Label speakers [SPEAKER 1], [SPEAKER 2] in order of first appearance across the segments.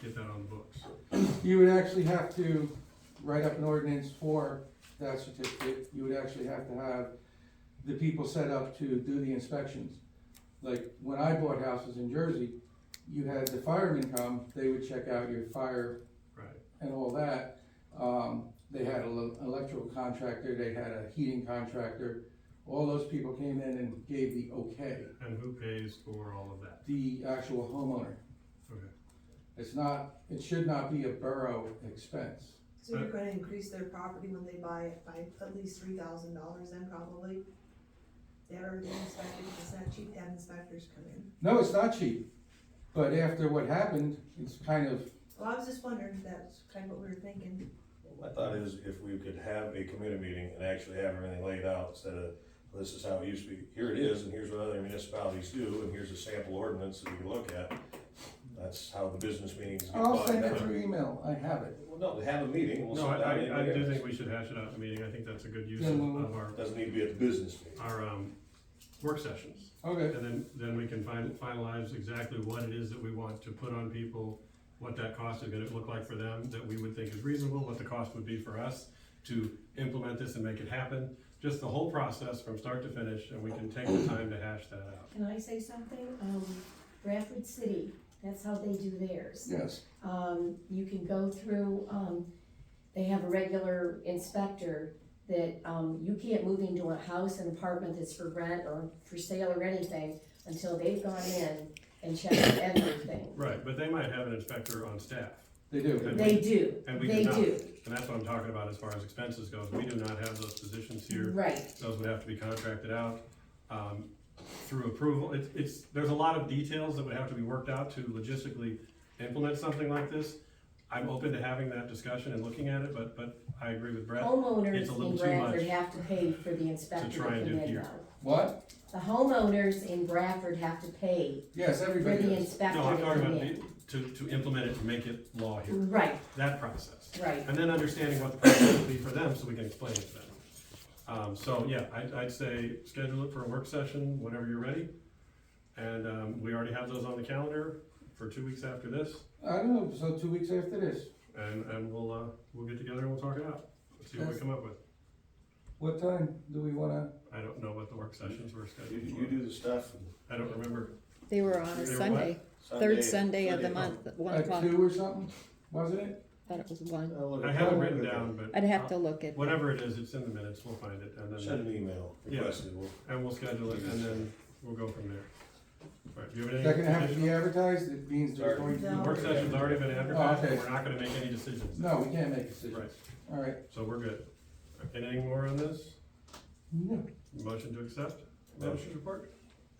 [SPEAKER 1] get that on the books.
[SPEAKER 2] You would actually have to write up an ordinance for that certificate, you would actually have to have the people set up to do the inspections. Like, when I bought houses in Jersey, you had the firemen come, they would check out your fire
[SPEAKER 1] Right.
[SPEAKER 2] and all that. Um, they had an ele- electrical contractor, they had a heating contractor, all those people came in and gave the okay,
[SPEAKER 1] And who pays for all of that?
[SPEAKER 2] the actual homeowner.
[SPEAKER 1] Okay.
[SPEAKER 2] It's not, it should not be a borough expense.
[SPEAKER 3] So you're gonna increase their property when they buy it by at least three thousand dollars then probably? They already inspected, it's not cheap to have inspectors come in.
[SPEAKER 2] No, it's not cheap, but after what happened, it's kind of,
[SPEAKER 3] Well, I was just wondering, if that's kind of what we were thinking.
[SPEAKER 4] My thought is if we could have a committee meeting and actually have everything laid out instead of, this is how it used to be, here it is, and here's what other municipalities do, and here's a sample ordinance that we can look at. That's how the business meetings get
[SPEAKER 2] I'll
[SPEAKER 4] bought
[SPEAKER 2] send it
[SPEAKER 4] down.
[SPEAKER 2] through email, I have it.
[SPEAKER 4] Well, no, have a meeting, and we'll
[SPEAKER 1] No,
[SPEAKER 4] sit down. and
[SPEAKER 1] I, I, I do
[SPEAKER 4] hear it.
[SPEAKER 1] think we should hash it out in a meeting. I think that's a good use
[SPEAKER 2] Yeah,
[SPEAKER 1] of
[SPEAKER 2] well-
[SPEAKER 1] of our,
[SPEAKER 4] Doesn't need to be at the business meeting.
[SPEAKER 1] our, um, work sessions.
[SPEAKER 2] Okay,
[SPEAKER 1] And then, then we can fin- finalize exactly what it is that we want to put on people, what that cost is gonna look like for them, that we would think is reasonable, what the cost would be for us to implement this and make it happen, just the whole process from start to finish, and we can take the time to hash that out.
[SPEAKER 5] Can I say something? Um, Bradford City, that's how they do theirs.
[SPEAKER 2] yes,
[SPEAKER 5] Um, you can go through, um, they have a regular inspector that, um, you can't move into a house, an apartment that's for rent or for sale or anything until they've gone in and checked everything.
[SPEAKER 1] Right, but they might have an inspector on staff,
[SPEAKER 2] they do.
[SPEAKER 1] And
[SPEAKER 5] They do,
[SPEAKER 1] and we do
[SPEAKER 5] they
[SPEAKER 1] not.
[SPEAKER 5] do,
[SPEAKER 1] And that's what I'm talking about as far as expenses goes. We do not have those positions here.
[SPEAKER 5] right.
[SPEAKER 1] Those would have to be contracted out um, through approval. It's, it's, there's a lot of details that would have to be worked out to logistically implement something like this. I'm open to having that discussion and looking at it, but, but I agree with Brett.
[SPEAKER 5] Homeowners
[SPEAKER 1] It's a little
[SPEAKER 5] in
[SPEAKER 1] too
[SPEAKER 5] Bradford
[SPEAKER 1] much
[SPEAKER 5] have to pay for the inspector to
[SPEAKER 1] try
[SPEAKER 5] come
[SPEAKER 1] and do
[SPEAKER 5] in
[SPEAKER 1] here.
[SPEAKER 5] though.
[SPEAKER 2] What?
[SPEAKER 5] The homeowners in Bradford have to pay
[SPEAKER 2] Yes,
[SPEAKER 5] for
[SPEAKER 2] everybody
[SPEAKER 5] the
[SPEAKER 2] does.
[SPEAKER 5] inspector
[SPEAKER 1] No,
[SPEAKER 5] to
[SPEAKER 1] I'm talking
[SPEAKER 5] come
[SPEAKER 1] about
[SPEAKER 5] in.
[SPEAKER 1] the- to, to implement it and make it law here,
[SPEAKER 5] Right,
[SPEAKER 1] that process.
[SPEAKER 5] right.
[SPEAKER 1] And then understanding what the process would be for them, so we can explain it to them. Um, so, yeah, I'd, I'd say schedule it for a work session whenever you're ready. And, um, we already have those on the calendar for two weeks after this,
[SPEAKER 2] I don't know, so two weeks after this,
[SPEAKER 1] and, and we'll, uh, we'll get together and we'll talk it out. Let's see what we come up with.
[SPEAKER 2] what time do we wanna,
[SPEAKER 1] I don't know what the work sessions were
[SPEAKER 4] You,
[SPEAKER 1] scheduled
[SPEAKER 4] you
[SPEAKER 1] for.
[SPEAKER 4] do the stuff. and
[SPEAKER 1] I don't remember.
[SPEAKER 6] They were on
[SPEAKER 1] They
[SPEAKER 6] a
[SPEAKER 1] were what?
[SPEAKER 6] Sunday, third Sunday of the month, at one
[SPEAKER 2] at
[SPEAKER 6] o'clock.
[SPEAKER 2] two or something, wasn't it?
[SPEAKER 6] Thought it was one.
[SPEAKER 4] I'll look
[SPEAKER 1] I
[SPEAKER 4] at-
[SPEAKER 1] have it written down, but.
[SPEAKER 6] I'd have to look at,
[SPEAKER 1] Whatever it is, it's in the minutes, we'll find it, and then,
[SPEAKER 4] Send an email,
[SPEAKER 1] Yeah.
[SPEAKER 4] request it, we'll
[SPEAKER 1] and we'll schedule it, and then we'll go from there. All right, do you have
[SPEAKER 2] Is
[SPEAKER 1] any?
[SPEAKER 2] that gonna have to
[SPEAKER 1] additional-
[SPEAKER 2] be advertised, it means there's going to
[SPEAKER 3] No.
[SPEAKER 1] The work
[SPEAKER 2] be.
[SPEAKER 1] session's already been advertised,
[SPEAKER 2] Oh, okay.
[SPEAKER 1] and we're not gonna make any decisions.
[SPEAKER 2] No, we can't make decisions,
[SPEAKER 1] Right,
[SPEAKER 2] alright.
[SPEAKER 1] so we're good. Anything more on this?
[SPEAKER 2] No.
[SPEAKER 1] Motion to accept, manager's report?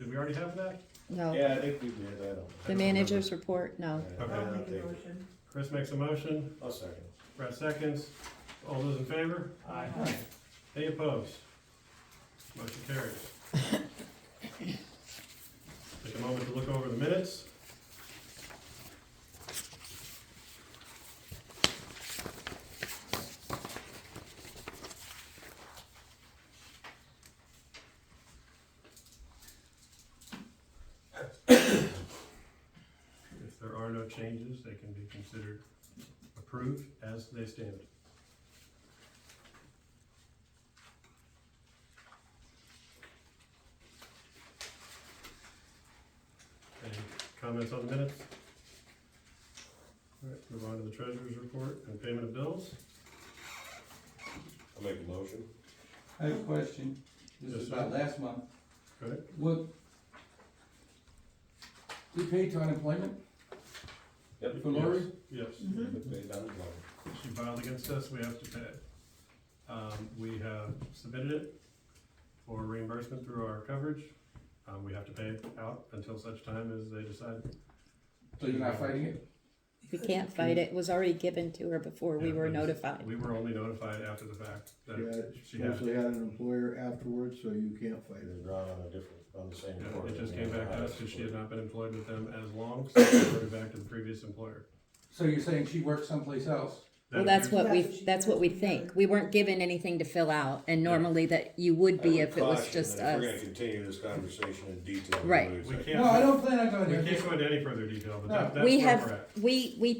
[SPEAKER 1] Did we already have that?
[SPEAKER 6] no,
[SPEAKER 4] Yeah, I think we did, I don't.
[SPEAKER 6] the manager's report, no.
[SPEAKER 4] yeah,
[SPEAKER 1] Okay.
[SPEAKER 3] I'll
[SPEAKER 4] I'll
[SPEAKER 3] make
[SPEAKER 4] take
[SPEAKER 3] a
[SPEAKER 4] it. Oh,
[SPEAKER 3] motion.
[SPEAKER 1] Chris makes a motion,
[SPEAKER 4] I'll second.
[SPEAKER 1] Brett seconds. All those in favor?
[SPEAKER 2] Alright.
[SPEAKER 1] Any opposed? Motion carries. Take a moment to look over the minutes. If there are no changes, they can be considered approved as they stand. Any comments on the minutes? All right, move on to the treasurer's report and payment of bills.
[SPEAKER 4] I'll make a motion.
[SPEAKER 2] I have a question, this is about last month,
[SPEAKER 1] Go ahead.
[SPEAKER 2] what? We paid to unemployment
[SPEAKER 4] Yep.
[SPEAKER 2] for Lori?
[SPEAKER 1] Yes,
[SPEAKER 3] Mhm.
[SPEAKER 6] Mm-hmm.
[SPEAKER 4] Pay down the loan.
[SPEAKER 1] she filed against us, we have to pay it. Um, we have submitted it for reimbursement through our coverage. Um, we have to pay it out until such time as they decide.
[SPEAKER 2] So you're not fighting it?
[SPEAKER 6] We can't fight it, it was already given to her before we
[SPEAKER 1] Yeah,
[SPEAKER 6] were
[SPEAKER 1] but-
[SPEAKER 6] notified.
[SPEAKER 1] We were only notified after the fact
[SPEAKER 7] Yeah,
[SPEAKER 1] that
[SPEAKER 7] it's
[SPEAKER 1] she had,
[SPEAKER 7] mostly had an employer afterwards, so you can't
[SPEAKER 4] It
[SPEAKER 7] fight it.
[SPEAKER 4] was drawn on a different, on the same.
[SPEAKER 1] yeah,
[SPEAKER 4] court.
[SPEAKER 1] it just came back to us because she had not been employed with them as long, so we reverted back to the previous employer.
[SPEAKER 2] So you're saying she worked someplace else?
[SPEAKER 6] Well,
[SPEAKER 1] That
[SPEAKER 6] that's
[SPEAKER 1] appears-
[SPEAKER 6] what
[SPEAKER 3] That's
[SPEAKER 6] we,
[SPEAKER 3] what she
[SPEAKER 6] that's what we
[SPEAKER 3] has.
[SPEAKER 6] think. We weren't given anything to fill out, and normally that you would be
[SPEAKER 4] I would
[SPEAKER 6] if it was
[SPEAKER 4] caution
[SPEAKER 6] just
[SPEAKER 4] that If we're gonna
[SPEAKER 6] us.
[SPEAKER 4] continue this conversation in detail.
[SPEAKER 6] Right.
[SPEAKER 4] we'll lose
[SPEAKER 1] We
[SPEAKER 4] that.
[SPEAKER 1] can't.
[SPEAKER 2] No, I don't plan on going
[SPEAKER 1] We
[SPEAKER 2] there.
[SPEAKER 1] can't go into any further detail, but
[SPEAKER 2] No.
[SPEAKER 1] that, that's where
[SPEAKER 6] We
[SPEAKER 1] we're at.
[SPEAKER 6] have, we, we